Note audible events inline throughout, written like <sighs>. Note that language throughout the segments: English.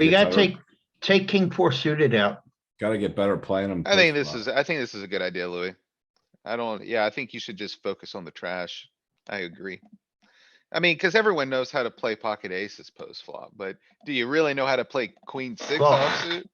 I You get gotta better- take, take king four suited out. Gotta get better playing them. I think this is, I think this is a good idea, Louis. I don't, yeah, I think you should just focus on the trash. I agree. I mean, cuz everyone knows how to play pocket aces post flop, but do you really know how to play queen six Flop. offsuit?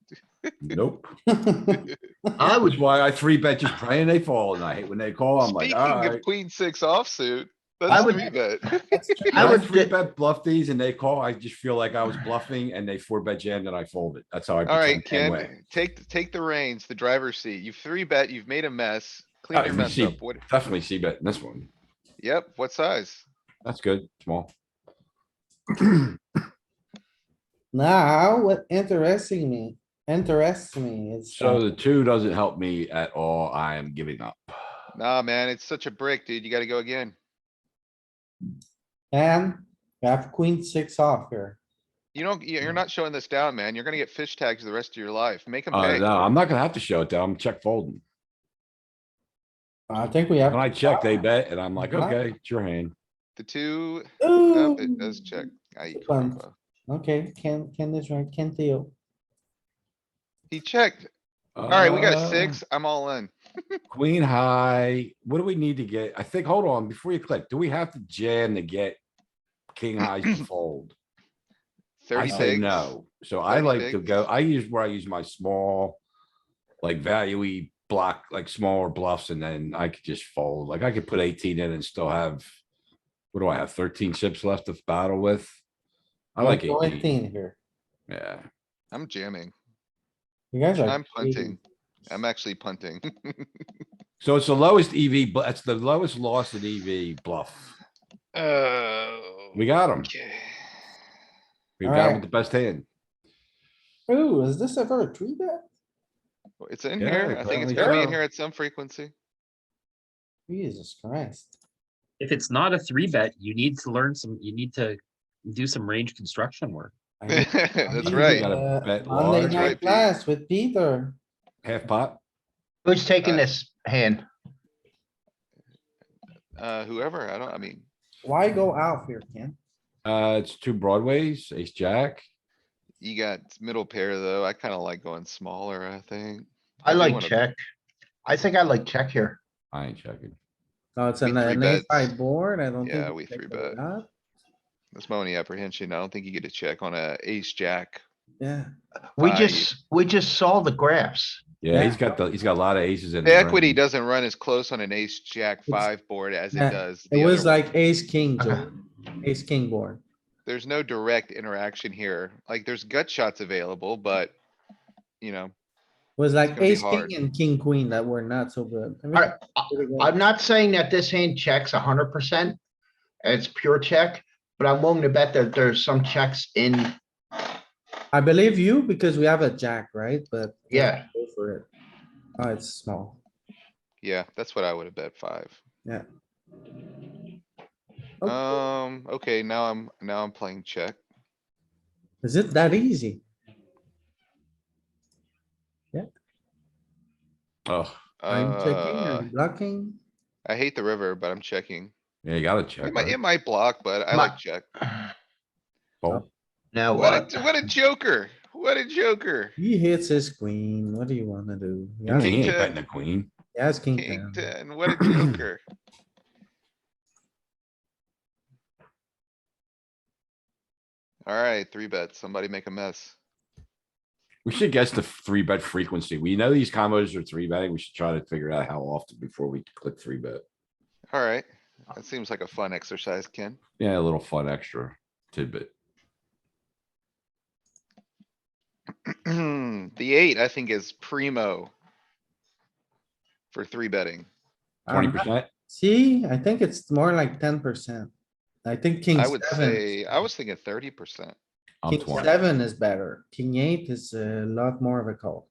Nope. I Which was, is why I three bet just pray and they fall and I hate when they call. I'm like, Speaking of alright. queen six offsuit, Oh I that's would- three bet. I I would three di- bet bluff these and they call. I just feel like I was bluffing and they four bet jammed and I folded. That's how I. <laughs> Alright, pretend game way. Ken, take, take the reins, the driver's seat. You've three bet, you've made a mess. Clean Oh, your you mess see. up. What, Definitely see bet in this one. yep, what size? That's good, small. Now, what interesting me, interests me is. So that- the two doesn't help me at all. I am giving up. Nah, man, it's such a brick, dude. You gotta go again. And we have queen six off here. You don't, you- you're Mm. not showing this down, man. You're gonna get fish tags the rest of your life. Make them Uh, pay. no, I'm not gonna have to show it though. I'm check folding. I think we have. When I check, they bet and I'm like, Huh? okay, it's your hand. The two, Ooh. oh, it does check. Ay, Fun. caramba. Okay, Ken, Ken is right, Ken Theo. He checked. Alright, we got a Uh, six. I'm all in. Queen high, what do we need to get? I think, hold on, before you click, do we have to jam to get king high to fold? I Thirty say pigs. no, so I 30 like to go, bigs. I use where I use my small. Like value block, like smaller bluffs, and then I could just fold, like I could put eighteen in and still have. What do I have? Thirteen chips left to battle with? I Let's like go eighteen, Eighteen here. yeah. I'm jamming. You guys are. I'm punting. cheating. I'm actually punting. <laughs> So it's the lowest EV, but it's the lowest loss in EV bluff. Oh. We got him. okay. We got him Alright. with the best hand. Ooh, is this ever a three bet? It's in Yeah, here. I think it's apparently gonna be in so. here at some frequency. <laughs> Jesus Christ. if it's not a three bet, you need to learn some, you need to do some range construction work. I mean, I <laughs> That's mean, right. Gotta uh, bet Monday large. Right, night Pete. class with Peter. Half pot. who's taking Uh, this hand? Uh, whoever, I don't, I mean, Why go out here, Ken? Uh, it's two broadways, ace, jack. you got middle pair though. I kinda like going smaller, I think. I do like wanna- check. I think I like check here. I ain't checking. No, it's We an uh, three an bets. eight five board. I don't think. Yeah, we we check three the bet. pot. That's my only apprehension. I don't think you get a check on a ace, jack. Yeah, We Five. just, we just saw the graphs. Yeah, he's got the, he's got a lot of aces in. The the equity range. doesn't run as close on an ace, jack It's- five board as it yeah, does. the it was uh, other- like ace, king, Okay. Uh-huh. Joe. ace, king board. There's no direct interaction here. Like, there's gut shots available, but, you know, Was like gonna be ace, hard. king and king, queen that were not so good. I mean, Alright, I- pretty good. I'm not saying that this hand checks hundred percent. It's pure check, but I'm willing to bet that there's some checks in, I believe you because we have a jack, right? But. <sighs> yeah. Go for it. Oh, it's small. yeah, that's what I would have bet five. Yeah. Okay. Um, okay, now I'm, now I'm playing check. Is it that easy? Oh, I'm checking, Uh, I'm blocking. I hate the river, but I'm checking. yeah, you gotta It check. might, right? it might block, but I My- like check. Fold. Now, uh, What a, what a joker. What a joker. He hits his queen. What do you wanna do? He Yeah, has- He king ain't ten. betting the queen. he has king King ten. ten, what a <laughs> joker. Alright, three bets. Somebody make a mess. We should guess the three bet frequency. We know these combos are three betting. We should try to figure out how often before we click three bet. Alright, that seems like a fun exercise, Ken. <clears throat> Yeah, a little fun extra tidbit. The eight, I think, is primo. For three betting. Twenty Um, percent. See, I think it's more like ten percent. I think king I would seven. say, I was thinking thirty percent. I'm King twenty. seven is better. King eight is a lot more of a call.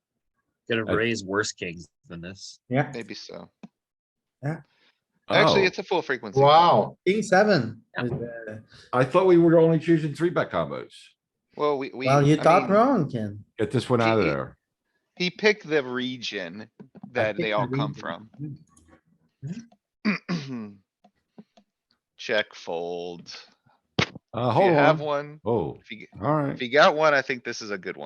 Gonna Uh, raise worse kings than this. Yeah, Maybe so. Oh, Actually, it's a full frequency. wow, king seven. Yeah. is, uh, I thought we were only choosing three bet combos. Well, we, we. Well, you I thought mean, wrong, Ken. Get this one out of Gee. there. He picked the region that picked they the all come region. from. <clears throat> Check fold. Uh, If you hold have on. one, Oh, if you, all right. if you got one, I think this is a good one.